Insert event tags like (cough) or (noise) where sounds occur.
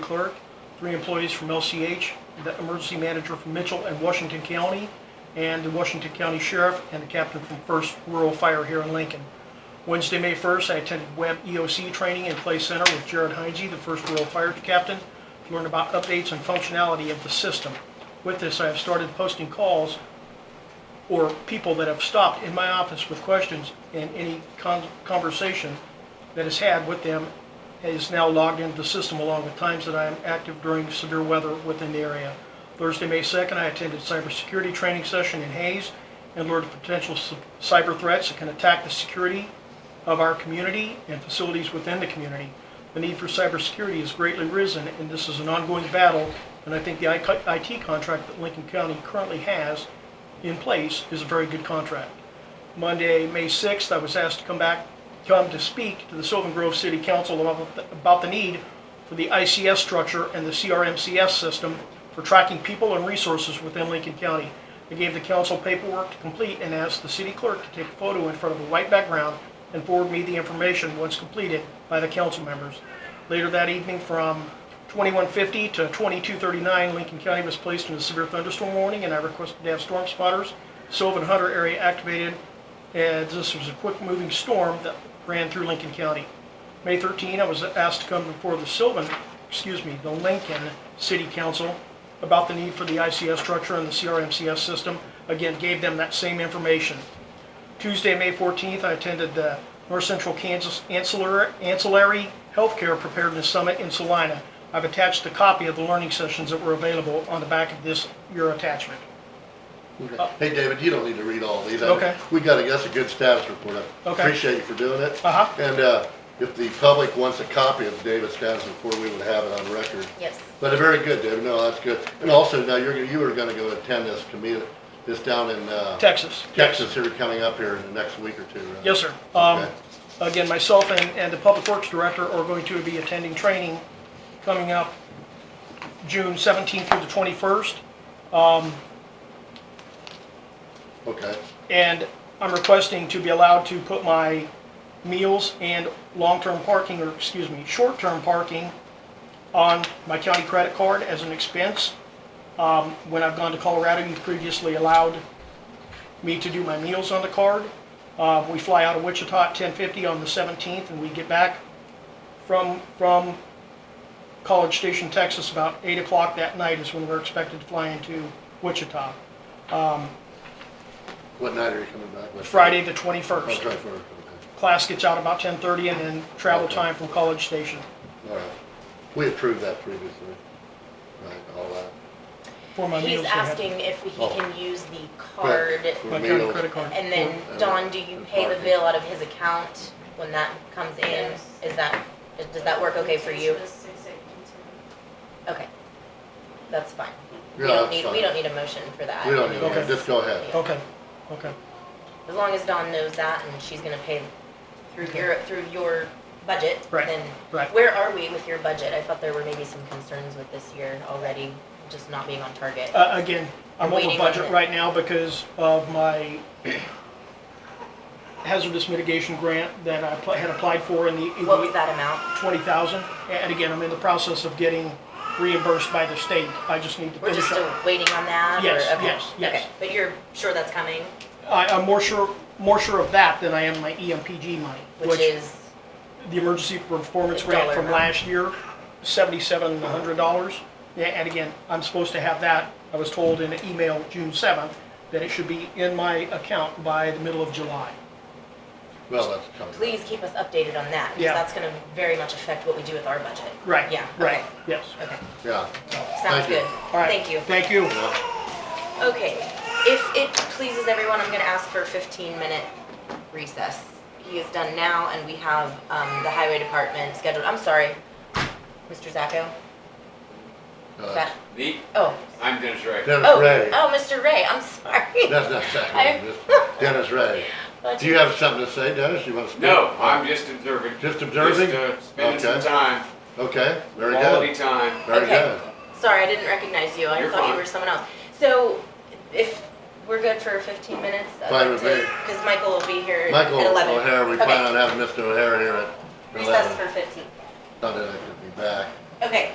clerk, three employees from LCH, the emergency manager from Mitchell and Washington County, and the Washington County Sheriff, and the captain from First Rural Fire here in Lincoln. Wednesday, May 1st, I attended Web EOC training in Play Center with Jared Heinze, the First Rural Fire Captain, to learn about updates and functionality of the system. With this, I have started posting calls or people that have stopped in my office with questions and any con- conversation that is had with them is now logged into the system along with times that I am active during severe weather within the area. Thursday, May 2nd, I attended cybersecurity training session in Hayes and learned potential s- cyber threats that can attack the security of our community and facilities within the community. The need for cybersecurity has greatly risen, and this is an ongoing battle, and I think the IT contract that Lincoln County currently has in place is a very good contract. Monday, May 6th, I was asked to come back, come to speak to the Sylvan Grove City Council about the- about the need for the ICS structure and the CRMCS system for tracking people and resources within Lincoln County. I gave the council paperwork to complete and asked the city clerk to take a photo in front of a white background and forward me the information once completed by the council members. Later that evening, from 2150 to 2239, Lincoln County was placed in a severe thunderstorm warning, and I requested to have storm spotters, Sylvan Hunter area activated, and this was a quick-moving storm that ran through Lincoln County. May 13, I was asked to come before the Sylvan, excuse me, the Lincoln City Council about the need for the ICS structure and the CRMCS system. Again, gave them that same information. Tuesday, May 14th, I attended the North Central Kansas Ancillary Ancillary Healthcare Preparedness Summit in Salina. I've attached a copy of the learning sessions that were available on the back of this, your attachment. Okay. Hey, David, you don't need to read all these. I- Okay. We got, a that's a good status report. I Okay. Appreciate you for doing it. Uh-huh. And, uh, if the public wants a copy of David's status report, we would have it on record. Yes. But uh, very good, David. No, that's good. And also, now you're, you are gonna go attend this commu, this down in, uh, Texas. Texas here, coming up here in the next week or two, right? Yes, sir. Um, Okay. Again, myself and, and the Public Works Director are going to be attending training coming up June 17th through the 21st. Okay. And I'm requesting to be allowed to put my meals and long-term parking, or excuse me, short-term parking on my county credit card as an expense. Um, When I've gone to Colorado, you previously allowed me to do my meals on the card. Uh, We fly out of Wichita at 10:50 on the 17th, and we get back from, from College Station, Texas, about 8 o'clock that night is when we're expected to fly into Wichita. What night are you coming back with? Friday, the 21st. Oh, try for, okay. class gets out about 10:30 and then travel Okay. time from College Station. All right. We approved that previously. Right, all that. For my meals. He's they have- asking if he Oh. can use the card, For My meals. county credit card. and then, Cool. Don, do you pay the bill out of his account when that comes in? Yes. Is that, does that work okay for you? Okay. That's fine. We Yeah, don't that's need, we fine. don't need a motion for that. We don't need, Okay. to- just go ahead. Okay, okay, As long as Dawn knows that and she's gonna pay through your, through your budget, Right, then. right. Where are we with your budget? I thought there were maybe some concerns with this year already, just not being on target. Uh, again, I'm We're over waiting on budget it. right now because of my hazardous mitigation grant that I pl- had applied for in the. in What the was that amount? 20,000, and again, I'm in the process of getting reimbursed by the state, I just need to We're just finish still up. waiting on that? or- Yes, okay, yes, yes. okay. But you're sure that's coming, I, I'm more sure, more sure of that than I am my E EMPG money, which is, the emergency performance grant Dollar from amount. last year, seventy-seven hundred dollars. Yeah, and again, I'm supposed to have that, I was told in an email June seventh, that it should be in my account by the middle of July. Well, that's coming. please keep us updated on that, Yeah. because that's gonna very much affect what we do with our budget. Right, Yeah, right, okay, yes. okay. Yeah. Sounds Thank you. good. All right, Thank you. Thank you. Yeah. Okay, if it pleases everyone, I'm gonna ask for a fifteen minute recess. He is done now and we have, um, the highway department scheduled, I'm sorry, Mr. Zacco, is Uh, that, Me? oh. I'm Dennis Ray. Dennis Oh, Ray. oh, Mr. Ray, I'm (laughs) sorry. That's not I- Sacramento. just (laughs) Dennis Ray. Do you have something to say, Dennis? You want to speak? No, I'm just observing. Just observing? Just, uh, spending some Okay. time, Okay, very quality good. time. Very Okay. good. Sorry, I didn't recognize you, I You're thought you fine. were someone else. So, if we're good for fifteen minutes, I'd Fine with like to- me. cause Michael will be here at Michael eleven. O'Hare, we Okay, plan on having Mr. O'Hare here at Recess eleven. for fifteen. Not that I could be back. Okay,